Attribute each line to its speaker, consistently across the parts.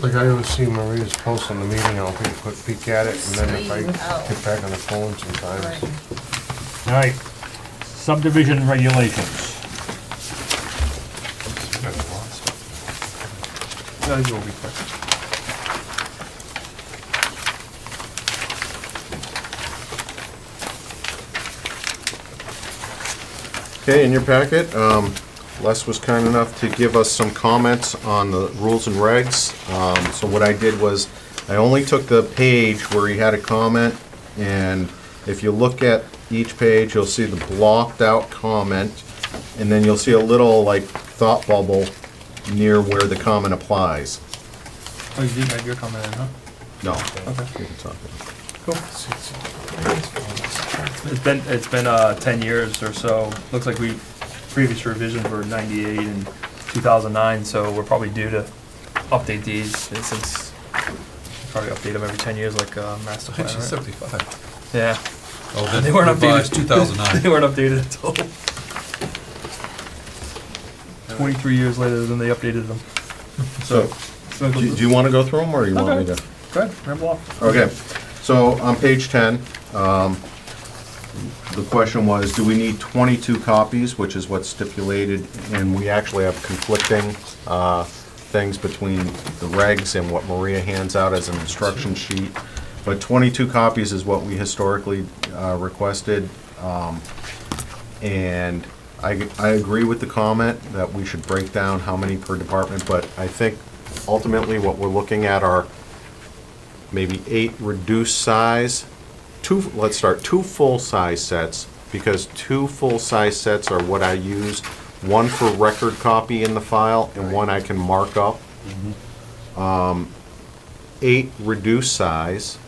Speaker 1: Like I always see Maria's post on the meeting, I'll take a quick peek at it, and then if I get back on the phone
Speaker 2: Right.
Speaker 1: sometimes.
Speaker 3: All right, subdivision regulations.
Speaker 1: No, you will be quick.
Speaker 4: Okay, in your packet, um, Les was kind enough to give us some comments on the rules and regs. Um, So what I did was, I only took the page where he had a comment, and if you look at each page, you'll see the blocked-out comment, and then you'll see a little, like, thought bubble near where the comment applies.
Speaker 5: Oh, you didn't have your comment in, huh?
Speaker 4: No.
Speaker 5: Okay.
Speaker 4: you can talk about it.
Speaker 5: Cool. It's been, it's been, uh, ten years or so. Looks like we, previous revisions were ninety-eight and two thousand nine, so we're probably due to update these and since, probably update them every ten years like, uh, master plan,
Speaker 6: Actually,
Speaker 5: right?
Speaker 6: seventy-five.
Speaker 5: Yeah,
Speaker 6: Oh, then
Speaker 5: They weren't updated.
Speaker 6: revised two thousand
Speaker 5: they
Speaker 6: nine.
Speaker 5: weren't updated at all. Twenty-three years later than they updated them.
Speaker 4: So, do do you want to go through them, or you want me to?
Speaker 5: Go ahead, ramble off.
Speaker 4: Okay, so on page 10, um, the question was, do we need 22 copies, which is what's stipulated, and we actually have conflicting uh, things between the regs and what Maria hands out as an instruction sheet, but 22 copies is what we historically uh, requested, um, and I I agree with the comment that we should break down how many per department, but I think ultimately what we're looking at are maybe eight reduced size, two, let's start, two full-size sets, because two full-size sets are what I use, one for record copy in the file and one I can mark up. Um, Eight reduced size,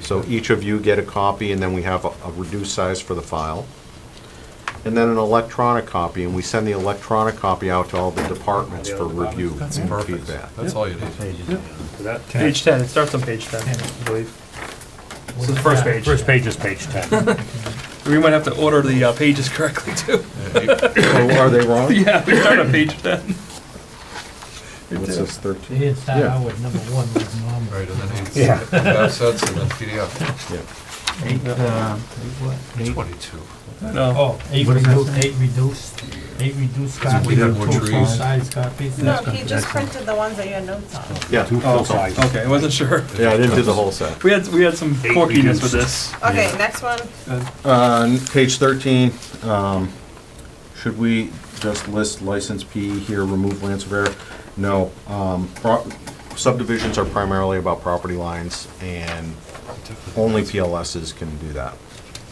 Speaker 4: so each of you get a copy and then we have a a reduced size for the file. And then an electronic copy, and we send the electronic copy out to all the departments for review
Speaker 6: That's
Speaker 4: and
Speaker 6: perfect.
Speaker 4: feedback.
Speaker 6: That's all you need.
Speaker 5: Page ten, it starts on page ten, I believe. This is the first page.
Speaker 3: First page is page 10.
Speaker 5: We might have to order the uh, pages correctly too.
Speaker 4: Oh, Are they wrong?
Speaker 5: yeah, we start on page ten.
Speaker 4: What's this, 13?
Speaker 7: They didn't start
Speaker 4: Yeah.
Speaker 7: out with number one was normal.
Speaker 6: Right, and then it's,
Speaker 3: Yeah.
Speaker 6: that's, that's in the PDF,
Speaker 4: Yeah.
Speaker 7: Eight, uh, eight what?
Speaker 6: twenty-two.
Speaker 5: No,
Speaker 7: Oh, eight reduced, eight reduced, eight reduced
Speaker 6: we
Speaker 7: copies,
Speaker 6: have more
Speaker 7: two
Speaker 6: trees.
Speaker 7: full-size copies.
Speaker 2: No, he just printed the ones that you had notes on.
Speaker 4: Yeah.
Speaker 3: Two full-size.
Speaker 5: okay, I wasn't sure.
Speaker 4: Yeah, I didn't do the whole set.
Speaker 5: We had we had some
Speaker 3: Eight
Speaker 5: quirkiness
Speaker 3: reduced.
Speaker 5: with this.
Speaker 2: Okay, next one.
Speaker 4: On Uh, page 13, um, should we just list license P here, remove land surveyor? No, um, pro- subdivisions are primarily about property lines, and only PLSs can do that,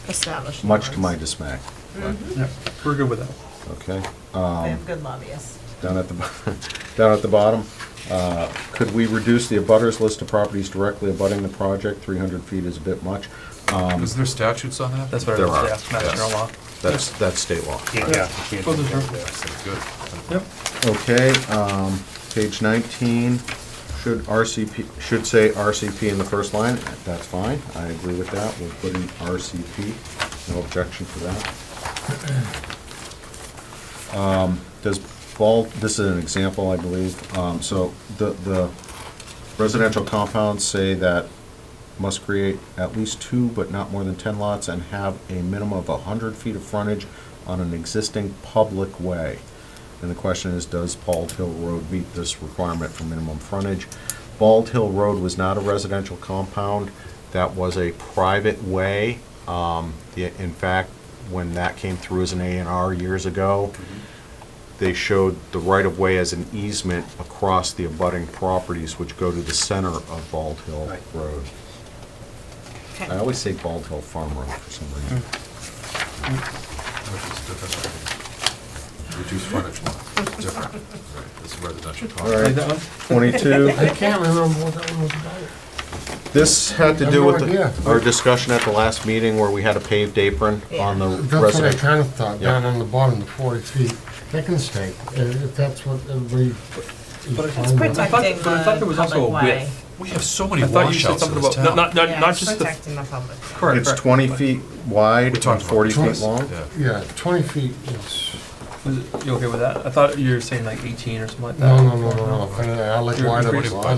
Speaker 2: Established.
Speaker 4: much to my dismay.
Speaker 3: Mm-hmm.
Speaker 5: We're good with that.
Speaker 4: Okay,
Speaker 2: They have good lobbyists.
Speaker 4: down at the, bo- down at the bottom, uh, could we reduce the abutters list of properties directly abutting the project? 300 feet is a bit much. Um,
Speaker 6: Is there statutes on that?
Speaker 5: That's what
Speaker 4: There
Speaker 5: it was.
Speaker 4: are,
Speaker 5: Yeah, Mass
Speaker 6: yes.
Speaker 5: General Law.
Speaker 4: That's, that's state law.
Speaker 3: Yeah, yeah, you can't do
Speaker 5: Wasn't
Speaker 3: that.
Speaker 5: sure.
Speaker 6: That's good.
Speaker 5: Yep.
Speaker 4: Okay, um, page nineteen, should RCP, should say RCP in the first line, that's fine, I agree with that, we'll put in RCP, no objection to that. Um, does bulk, this is an example, I believe, um, so the, the residential compounds say that must create at least two but not more than ten lots and have a minimum of hundred feet of frontage on an existing public way. And the question is, does Bald Hill Road meet this requirement for minimum frontage? Bald Hill Road was not a residential compound, that was a private way. Um, the- In fact, when that came through as an A and R years ago, they showed the right-of-way as an easement across the abutting properties which go to the center of Bald Hill Road.
Speaker 2: Okay.
Speaker 4: I always say Bald Hill Farm Road for some reason.
Speaker 6: Which is different. Reduced frontage lot, different. Right, This is residential.
Speaker 4: All right.
Speaker 5: Like that one.
Speaker 4: Twenty-two,
Speaker 1: I can't remember what that one was about.
Speaker 4: this had to
Speaker 1: I
Speaker 4: do
Speaker 1: have
Speaker 4: with
Speaker 1: no idea.
Speaker 4: the- our discussion at the last meeting where we had a paved apron on the
Speaker 1: That's what I
Speaker 4: residential.
Speaker 1: kind of thought,
Speaker 4: Yeah.
Speaker 1: down on the bottom, the forty feet, they can stay, uh, if if that's what everybody.
Speaker 5: But it's
Speaker 2: It's
Speaker 5: I thought-
Speaker 2: protecting
Speaker 5: but I thought there
Speaker 2: the
Speaker 5: was also
Speaker 2: public
Speaker 5: a
Speaker 2: way.
Speaker 5: width.
Speaker 6: We have so many
Speaker 5: I thought you said
Speaker 6: washouts in
Speaker 5: something
Speaker 6: this
Speaker 5: about not
Speaker 6: town.
Speaker 5: not not,
Speaker 2: Yeah,
Speaker 5: not
Speaker 2: it's
Speaker 5: just the
Speaker 2: protecting the public.
Speaker 5: correct.
Speaker 4: It's
Speaker 5: correct.
Speaker 4: twenty feet wide and
Speaker 6: talked about
Speaker 4: forty feet
Speaker 1: twice.
Speaker 4: long.
Speaker 6: Yeah.
Speaker 1: Yeah, twenty feet is,
Speaker 5: Was it, you okay with that? I thought you were saying like eighteen or something like that.
Speaker 1: no, no, no, no, no, I like
Speaker 5: Uh, You're
Speaker 1: wider,
Speaker 5: increasing-
Speaker 1: I